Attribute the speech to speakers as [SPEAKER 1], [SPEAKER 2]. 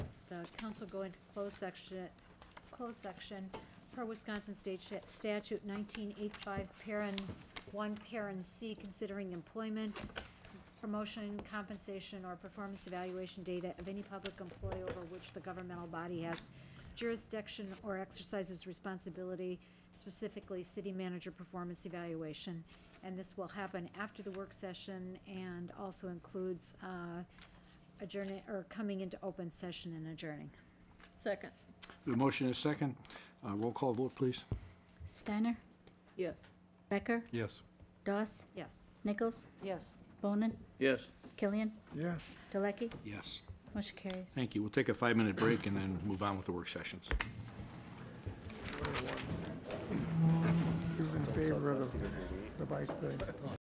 [SPEAKER 1] uh, council go into closed section, closed section per Wisconsin State Sha- Statute nineteen eight-five, parent one, parent C, considering employment, promotion, compensation, or performance evaluation data of any public employee over which the governmental body has jurisdiction or exercises responsibility, specifically city manager performance evaluation. And this will happen after the work session and also includes uh, adjourning, or coming into open session and adjourning.
[SPEAKER 2] Second.
[SPEAKER 3] The motion is second. Uh, Roll call vote, please.
[SPEAKER 4] Steiner,
[SPEAKER 2] Yes.
[SPEAKER 4] Becker,
[SPEAKER 3] Yes.
[SPEAKER 4] Doss,
[SPEAKER 1] Yes.
[SPEAKER 4] Nichols,
[SPEAKER 2] Yes.
[SPEAKER 4] Bonin,
[SPEAKER 5] Yes.
[SPEAKER 4] Killian,
[SPEAKER 6] Yes.
[SPEAKER 4] Delecky.
[SPEAKER 3] Yes.
[SPEAKER 4] Motion carries.
[SPEAKER 3] Thank you. We'll take a five-minute break and then move on with the work sessions.
[SPEAKER 6] He was in favor of the- the bike thing.